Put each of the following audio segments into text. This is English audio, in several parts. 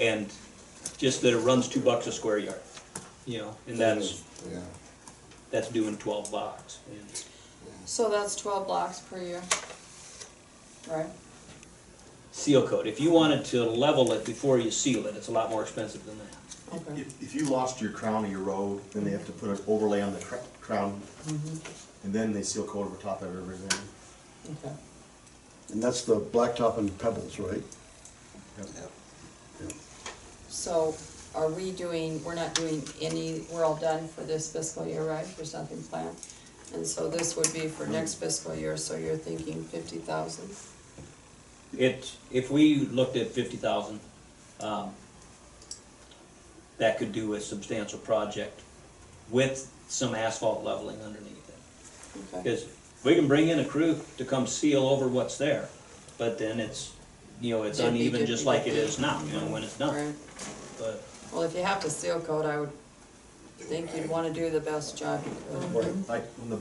and just that it runs two bucks a square yard, you know, and that's, Yeah, that's doing twelve blocks. And So that's twelve blocks per year. Right? Seal coat, if you wanted to level it before you seal it, it's a lot more expensive than that. Okay. If, if you lost your crown of your road, then they have to put an overlay on the cr- crown, and then they seal coat over top of everything. Okay. and that's the blacktop and pebbles, right? So are we doing, we're not doing any, we're all done for this fiscal year, right, There's nothing planned? And so this would be for next fiscal year, so you're thinking fifty thousand? It, if we looked at fifty thousand, um, that could do a substantial project with some asphalt leveling underneath it. Okay, Because we can bring in a crew to come seal over what's there, but then it's, you know, it's It'd be uneven just like it difficult. is now, you know, when it's done. alright. But Well, if you have to seal coat, I would think you'd wanna do the best job you could. Like, when the,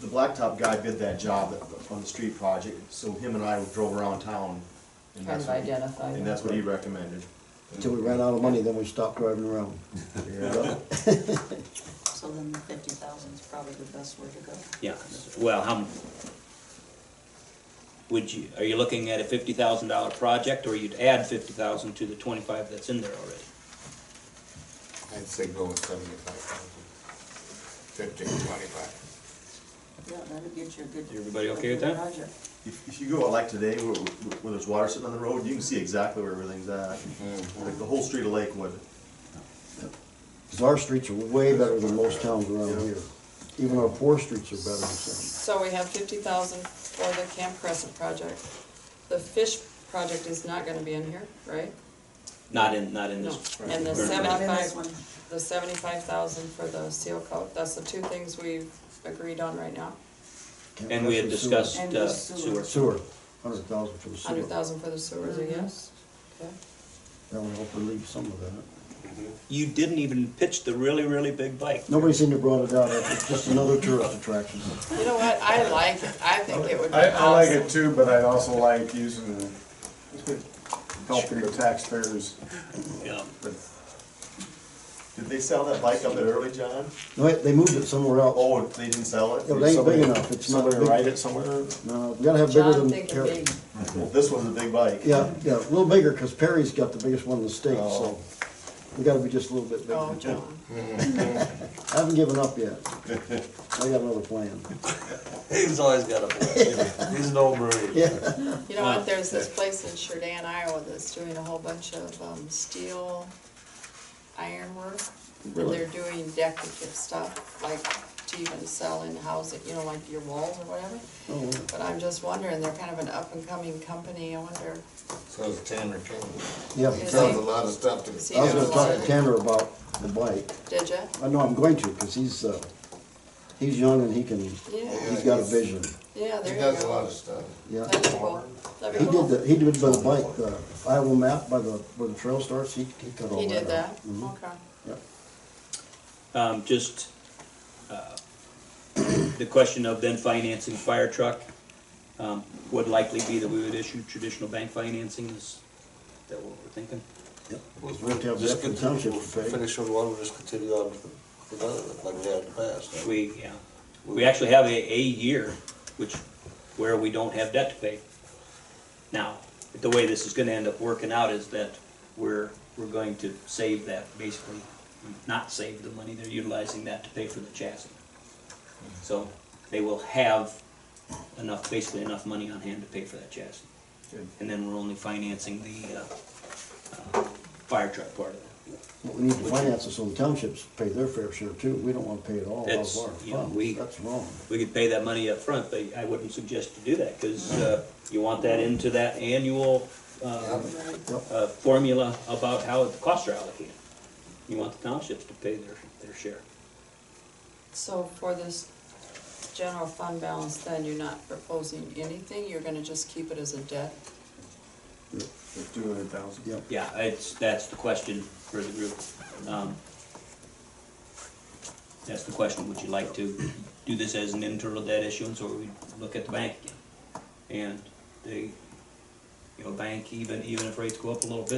the blacktop guy did that job that- on the street project, so him and I drove around town. and Kind that's of what- identify. And that's what he recommended. Until we ran out of money, then we stopped driving around. Yeah. So then the fifty thousand is probably the best way to go. Yeah, well, how, m- would you, are you looking at a fifty thousand dollar project, or you'd add fifty thousand to the twenty-five that's in there already? I'd say go with seventy-five thousand. Fifteen, twenty-five. Yeah, that'll get you a good. Everybody okay with a that? good project. If, if you go out like today, where, where there's water sitting on the road, you can see exactly where everything's at, Mm. like the whole street of Lakewood. Because our streets are way better than most towns around here. Even our poor streets are better than some. So we have fifty thousand for the Camp Crescent project. The fish project is not gonna be in here, right? Not in, not in No, this, and the Not in this seventy-five, one. the seventy-five thousand for the seal coat, that's the two things we've agreed on right now. Can't and we had mess with discussed And the uh, sewer. sewer. Sewer, hundred thousand for the sewer. Hundred thousand for the sewers, I guess, okay? That would help relieve some of that. You didn't even pitch the really, really big bike. Nobody seemed to brought it out, it's just another tourist attraction. You know what, I like it, I think it would be I, I like awesome. it too, but I'd also like using the, helping the taxpayers Yeah. Did they sell that bike up there early, John? No, wait, they moved it somewhere else. Oh, they didn't sell it? It ain't big enough, it's not Somebody write big. it somewhere? No, we gotta have bigger John, than think of Perry. big, This one's a big bike. Yeah, yeah, a little bigger, because Perry's got the biggest one in the state, Oh. so we gotta be just a little bit oh, bigger. John, I haven't given up yet. I got another plan. He's always got a plan. He's no brainer. Yeah, you know Oh, what, there's this place in Sheridan, Iowa that's doing a whole bunch of, um, steel ironwork. And they're doing decorative stuff, like to even sell in housing, you know, like your walls or whatever. Oh, But I'm just wondering, they're kind of an up-and-coming company, I wonder, So it's Tanner King. yeah. He Is sells he- a lot of stuff to. is he I was gonna Yeah. talk to Tanner about the bike. did ya? I know I'm going to, because he's, uh, he's young and he can, Yeah, he's got a vision. yeah, He there you go. does a lot of stuff. Yeah. That'd be cool, that'd He be did cool. the, he did by the bike, the Iowa map by the, where the trail starts, he, he cut all that out. He did that, Mhm. okay. Yep. Um, just, uh, the question of then financing fire truck, um, would likely be that we would issue traditional bank financing, is that what we're thinking? We'll have Just Beckman continue- Township we'll to pay. Finish with one, we'll just continue on with with another, like we had in the past. We, yeah, we actually have a, a year, which, where we don't have debt to pay. Now, the way this is gonna end up working out is that we're, we're going to save that, basically, not save the money, they're utilizing that to pay for the chassis. So, they will have enough, basically enough money on hand to pay for that chassis. Good. And then we're only financing the, uh, uh, fire truck part of it. But we need to finance this on the townships, pay their fair share too. We don't wanna pay it all out That's, of our you know, we- funds. That's wrong. We could pay that money up front, but I wouldn't suggest to do that, because you want that into that annual uh, uh, formula about how the costs are allocated. You want the townships to pay their, their share. So for this general fund balance, then you're not proposing anything, you're gonna just keep it as a debt? Two hundred thousand. Yep. Yeah, it's, that's the question for the group. Um, That's the question, would you like to do this as an internal debt issuance, or we look at the bank again? And the, you know, bank, even, even if rates go up a little bit,